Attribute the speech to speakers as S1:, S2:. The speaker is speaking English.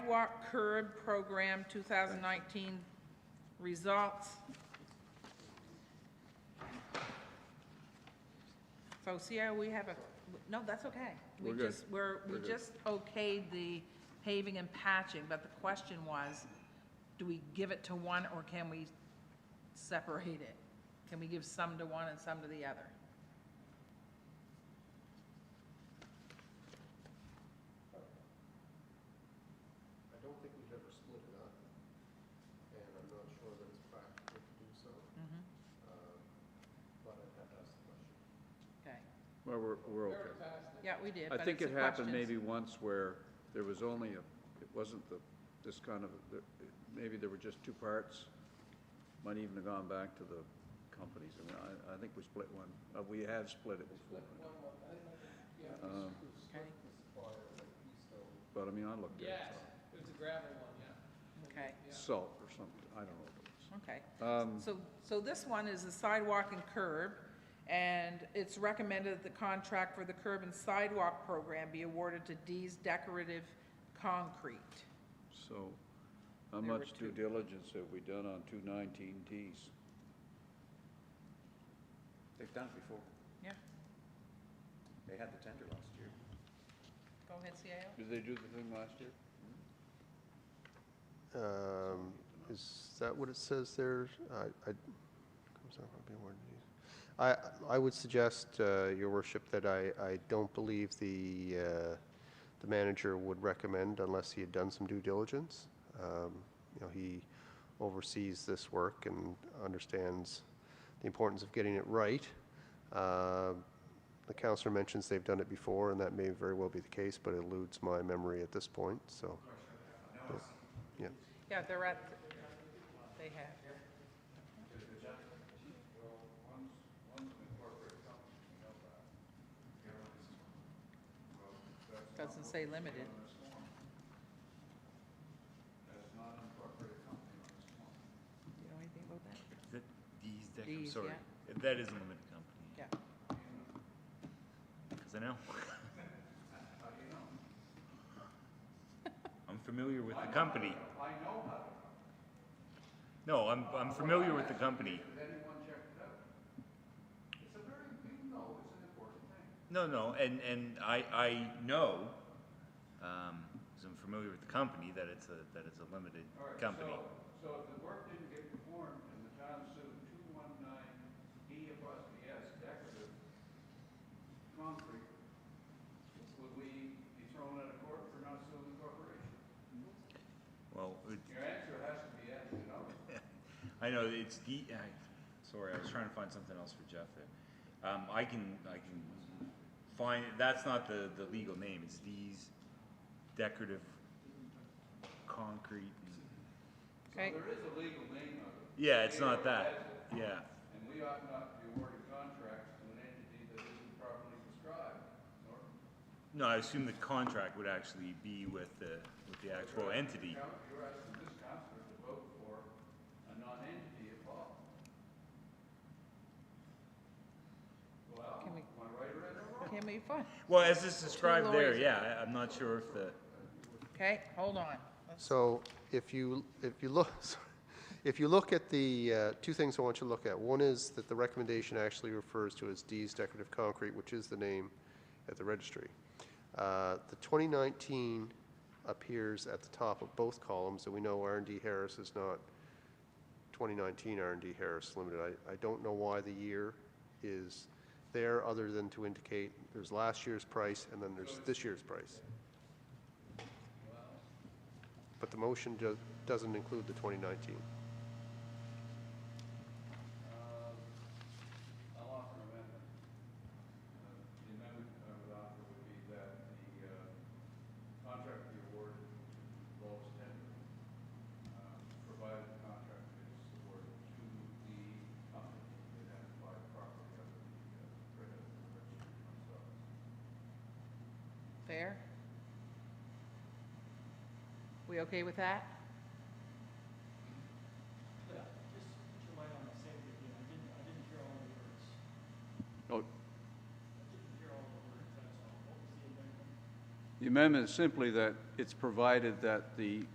S1: sidewalk curb program 2019 results. So see how we have a, no, that's okay. We
S2: We're good.
S1: just, we're, we
S2: We're good.
S1: just okayed the paving and patching, but the question was, do we give it to one or can we separate it? Can we give some to one and some to the other?
S3: I don't think we've ever split it up, and I'm not sure that it's practical to do so,
S1: Mhm.
S3: um, but I'd have to ask the question.
S1: Okay,
S2: Well, we're, we're okay.
S1: yeah, we did,
S2: I
S1: but
S2: think
S1: it's
S2: it
S1: the
S2: happened
S1: questions.
S2: maybe once where there was only a, it wasn't the, this kind of, there- maybe there were just two parts. Might even have gone back to the companies. I mean, I, I think we split one, uh, we have split it before. Um,
S1: Okay,
S2: But I mean, I looked at it,
S4: Yes, it was a gravel one, yeah.
S1: okay,
S2: it's salt or something, I don't know. what
S1: okay.
S2: it was. Um,
S1: So, so this one is the sidewalk and curb, and it's recommended that the contract for the curb and sidewalk program be awarded to D's Decorative Concrete.
S2: so how
S1: There were
S2: much due diligence have we done on two nineteen Ts?
S5: They've done it before.
S1: Yeah,
S5: They had the tender last year.
S1: go ahead, CAO.
S2: Did they do the thing last year?
S3: Um, is that what it says there? I, I, comes out on being awarded these. I, I would suggest, uh, your worship, that I, I don't believe the, uh, the manager would recommend unless he had done some due diligence. Um, you know, he oversees this work and understands the importance of getting it right. Uh, the counselor mentions they've done it before, and that may very well be the case, but it eludes my memory at this point, so. Yeah.
S1: Yeah, they're at, they have. Doesn't say limited. You know anything about that?
S6: That, these, that, I'm
S1: These,
S6: sorry,
S1: yeah.
S6: that is a limited company,
S1: Yeah,
S6: because I know. I'm familiar with the company. I know No, I'm, I'm familiar with the company. No, no, and, and I, I know, um, because I'm familiar with the company, that it's a, that it's a limited company.
S7: So if the work didn't get performed and the town sued two one nine D apostrophe S decorative concrete, would we be thrown out of court for not suing the corporation?
S1: Mm-hmm.
S6: Well, it,
S7: Your answer has to be yes, you know?
S6: I know it's D. I, sorry, I was trying to find something else for Jeff there. Um, I can I can find that's not the the legal name. It's D's decorative concrete. and-
S1: okay,
S7: There is a legal name of it,
S6: yeah, it's not that. Yeah,
S7: and we ought not to be awarding contracts to an entity that isn't properly described, nor
S6: no. I assume the contract would actually be with the with the actual entity.
S7: you're asking this counselor to vote for a non-entity at all. Well,
S1: Can we-
S7: am I right or am I wrong?
S1: can we find,
S6: Well, as it's described there,
S1: lawyers.
S6: yeah, I, I'm not sure if the
S1: okay, hold on.
S3: So if you, if you look, sorry. if you look at the, uh, two things I want you to look at. One is that the recommendation actually refers to as D's Decorative Concrete, which is the name at the registry. Uh, The 2019 appears at the top of both columns, and we know r and D Harris is not 2019 r and D Harris Limited. I, I don't know why the year is there, other than to indicate there's last year's price and then there's this year's price. But the motion do- doesn't include the 2019.
S7: Um, I'll offer an amendment. Uh, The amendment I would offer would be that the uh, contract be awarded to Lowe's tender, uh, provided the contract is awarded to the company that has applied properly under the uh, credit registry themselves.
S1: Fair? We okay with that?
S8: Yeah, just put your light on the safety again. I didn't, I didn't hear all the words.
S2: Oh,
S8: I didn't hear all the words, that's all. What was the amendment?
S7: The amendment is simply that it's provided that the